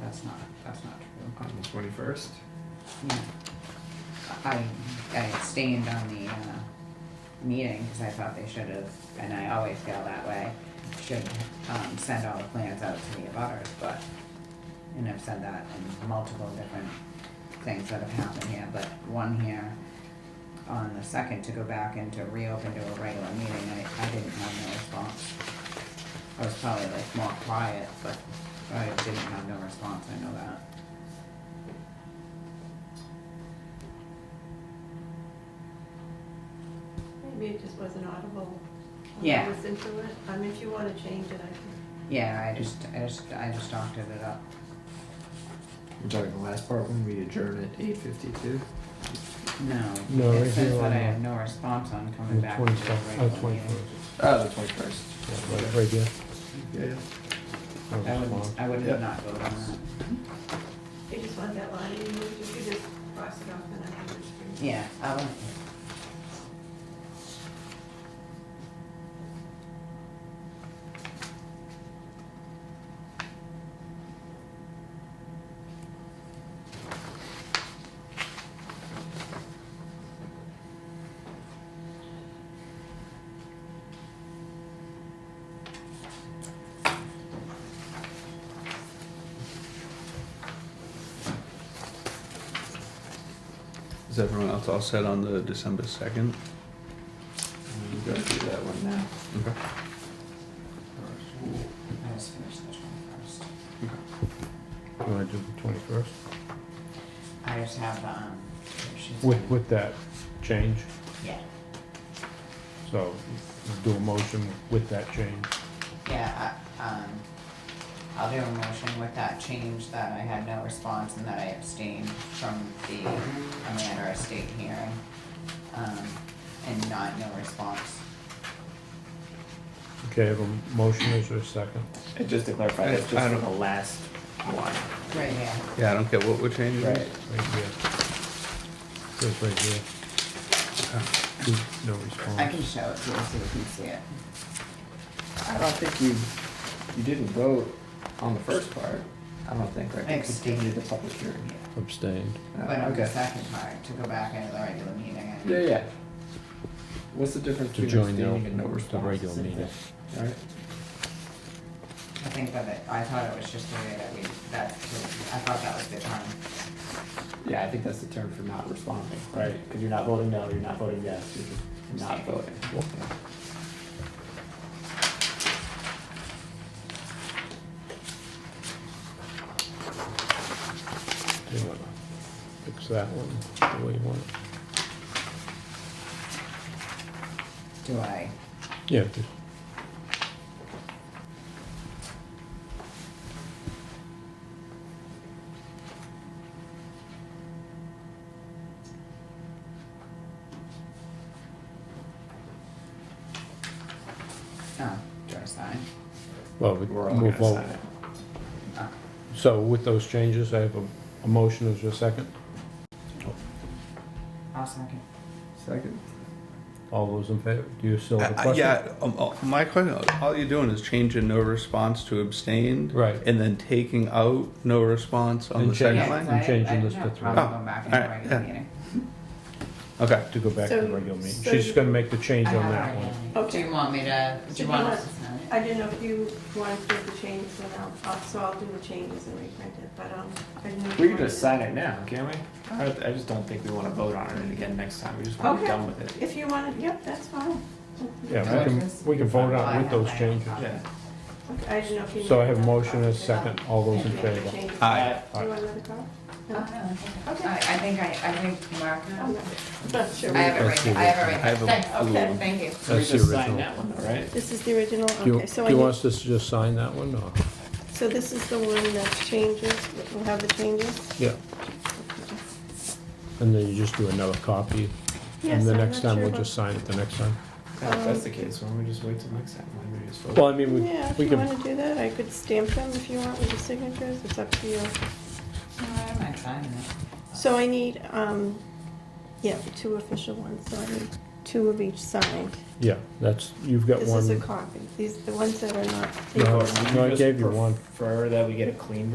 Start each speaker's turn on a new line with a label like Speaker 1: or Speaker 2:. Speaker 1: that's not, that's not true.
Speaker 2: on the twenty-first.
Speaker 1: Yeah. I, I abstained on the, uh, meeting, cause I thought they should have, and I always feel that way, should, um, send all the plans out to the abutters, but, and I've said that in multiple different things that have happened here, but one here on the second to go back and to reopen to a regular meeting, I, I didn't have no response. I was probably like more quiet, but I didn't have no response, I know that.
Speaker 3: Maybe it just wasn't audible. when I
Speaker 1: Yeah.
Speaker 3: listened to it. I mean, if you wanna change it, I
Speaker 1: Yeah, I just, I just, I just doctored it up.
Speaker 2: I'm talking the last part when we adjourn at eight fifty-two.
Speaker 1: No.
Speaker 4: No, right
Speaker 1: It says that
Speaker 4: here
Speaker 1: I
Speaker 4: on the-
Speaker 1: have no response on coming back. to the
Speaker 4: Twenty second,
Speaker 1: regular
Speaker 4: uh,
Speaker 1: meeting.
Speaker 4: twenty first.
Speaker 5: Ah,
Speaker 2: Oh, the twenty-first.
Speaker 4: Yeah, right, right there.
Speaker 2: Yeah.
Speaker 4: That was
Speaker 1: I
Speaker 4: long.
Speaker 1: Oh, would, I
Speaker 2: Yep.
Speaker 1: would not vote on that.
Speaker 3: could, you just want that line, you could just, you could just cross it off and I can just. read it.
Speaker 1: Yeah, I would.
Speaker 5: Is everyone else all set on the December second?
Speaker 2: You gotta do that one now.
Speaker 5: Okay.
Speaker 1: I just finished the twenty-first.
Speaker 4: You wanna do the twenty-first?
Speaker 1: I just have, um, she's.
Speaker 4: With, with that change,
Speaker 1: Yeah,
Speaker 4: so do a motion with that change.
Speaker 1: yeah, I, um, I'll do a motion with that change that I had no response and that I abstained from the Amanda Estate hearing. Um, and not no response.
Speaker 4: Okay, I have a motion, is there a second?
Speaker 2: And just to clarify,
Speaker 5: I-
Speaker 2: that's
Speaker 5: I
Speaker 2: just for
Speaker 5: don't-
Speaker 2: the last one.
Speaker 1: Right, yeah.
Speaker 5: Yeah, I don't care what we're
Speaker 2: Mm-hmm.
Speaker 5: changing.
Speaker 4: Right here. Says right here. Uh, No response.
Speaker 1: I can show it to you so you can see it.
Speaker 2: I don't think you, you didn't vote on the first part. I don't think, right? You
Speaker 1: Abstain.
Speaker 2: Continue the public hearing.
Speaker 4: Abstained.
Speaker 2: Uh,
Speaker 1: But on the
Speaker 2: okay.
Speaker 1: second part, to go back into the regular meeting
Speaker 2: Yeah,
Speaker 1: and,
Speaker 2: yeah. What's the difference
Speaker 4: To
Speaker 2: between
Speaker 4: join the,
Speaker 2: abstaining and no
Speaker 4: the
Speaker 2: response?
Speaker 4: regular meeting.
Speaker 2: Alright,
Speaker 1: I think that it, I thought it was just the way that we, that, I thought that was the term.
Speaker 2: yeah, I think that's the term for not responding, right? Cause you're not voting no, you're not voting yes, you're just not voting.
Speaker 4: Do you wanna fix that one the way you want it?
Speaker 1: Do I,
Speaker 4: Yeah, just,
Speaker 1: oh, do I sign?
Speaker 4: well, we
Speaker 2: We're all gonna
Speaker 4: move
Speaker 2: sign
Speaker 4: on.
Speaker 2: it.
Speaker 1: Oh,
Speaker 4: So with those changes, I have a, a motion, is there a second?
Speaker 1: I'll second.
Speaker 2: Second.
Speaker 4: All those in favor, do you still have a
Speaker 5: Uh, uh,
Speaker 4: question?
Speaker 5: Yeah, um, uh, my question, all you're doing is changing no response to abstained.
Speaker 4: Right.
Speaker 5: And then taking out no response on
Speaker 4: And
Speaker 5: the
Speaker 4: change-
Speaker 5: second
Speaker 1: Yeah, 'cause
Speaker 5: line?
Speaker 1: I-
Speaker 4: I'm changing
Speaker 1: I
Speaker 4: this
Speaker 1: have
Speaker 4: to
Speaker 1: problem
Speaker 5: three.
Speaker 1: going back into
Speaker 5: Oh,
Speaker 1: the
Speaker 5: alright,
Speaker 1: regular
Speaker 5: yeah.
Speaker 1: meeting.
Speaker 5: Okay,
Speaker 4: To go back to the
Speaker 3: So-
Speaker 4: regular meeting,
Speaker 3: so
Speaker 4: she's
Speaker 3: you-
Speaker 4: gonna make the change
Speaker 1: I
Speaker 4: on
Speaker 1: have
Speaker 4: that
Speaker 1: it
Speaker 4: one.
Speaker 1: right here. Do you want me to, do you want us to sign it?
Speaker 3: I didn't know if you wanted to do the changes and I'll, I'll- so I'll do the changes and reprint it, but, um, I didn't know. if
Speaker 2: We
Speaker 3: you
Speaker 2: can just
Speaker 3: wanted
Speaker 2: sign it now, can't we? I, I just don't think we wanna vote on it again next time, we just
Speaker 3: to-
Speaker 2: wanna be done with
Speaker 3: Okay,
Speaker 2: it.
Speaker 3: if you wanted, yep, that's fine.
Speaker 4: Yeah,
Speaker 2: Alright.
Speaker 4: we can, we can vote
Speaker 1: I
Speaker 4: on
Speaker 1: have
Speaker 4: with those
Speaker 1: my-
Speaker 4: changes.
Speaker 2: Yeah.
Speaker 3: Okay, I didn't know if you.
Speaker 4: So I
Speaker 3: needed
Speaker 4: have
Speaker 3: another
Speaker 4: motion as
Speaker 3: copy.
Speaker 4: second, all those in
Speaker 3: Make the
Speaker 4: favor?
Speaker 3: changes.
Speaker 2: Aye.
Speaker 3: Do you want another copy?
Speaker 1: Oh, no,
Speaker 3: No?
Speaker 1: I think-
Speaker 3: Okay.
Speaker 1: I, I think I, I think Mark,
Speaker 3: I'm not- not sure.
Speaker 1: I have it right,
Speaker 4: That's the
Speaker 1: here. I have it right.
Speaker 4: original.
Speaker 5: I have a-
Speaker 1: Thanks.
Speaker 5: a little
Speaker 1: Okay,
Speaker 5: one.
Speaker 1: Thank you.
Speaker 2: So we
Speaker 4: That's the
Speaker 2: just sign
Speaker 4: original.
Speaker 2: that one though, right?
Speaker 3: This is the original,
Speaker 4: Do you,
Speaker 3: okay, so
Speaker 4: do
Speaker 3: I
Speaker 4: you
Speaker 3: need-
Speaker 4: want us to just sign that one, or?
Speaker 3: so this is the one that's changes, we'll have the changes?
Speaker 4: Yeah. And then you just do another copy,
Speaker 3: Yes,
Speaker 4: and the
Speaker 3: I'm not
Speaker 4: next time
Speaker 3: sure
Speaker 4: we'll
Speaker 3: about-
Speaker 4: just sign it the next time.
Speaker 2: Yeah, If that's the case, why don't we just wait till next time, why don't we just vote?
Speaker 4: Well, I mean, we,
Speaker 3: Yeah, if
Speaker 4: we
Speaker 3: you
Speaker 4: can,
Speaker 3: wanna do that, I could stamp them if you want with the signatures, it's up to you.
Speaker 1: No, Oh, I don't mind signing it.
Speaker 3: So I need, um, yeah, two official ones, so I need two of each signed.
Speaker 4: yeah, that's, you've got
Speaker 3: This is a
Speaker 4: one,
Speaker 3: copy, these, the ones that are not.
Speaker 4: No.
Speaker 2: Would
Speaker 4: no, I
Speaker 2: just
Speaker 4: gave you one.
Speaker 2: Prefer that we get a clean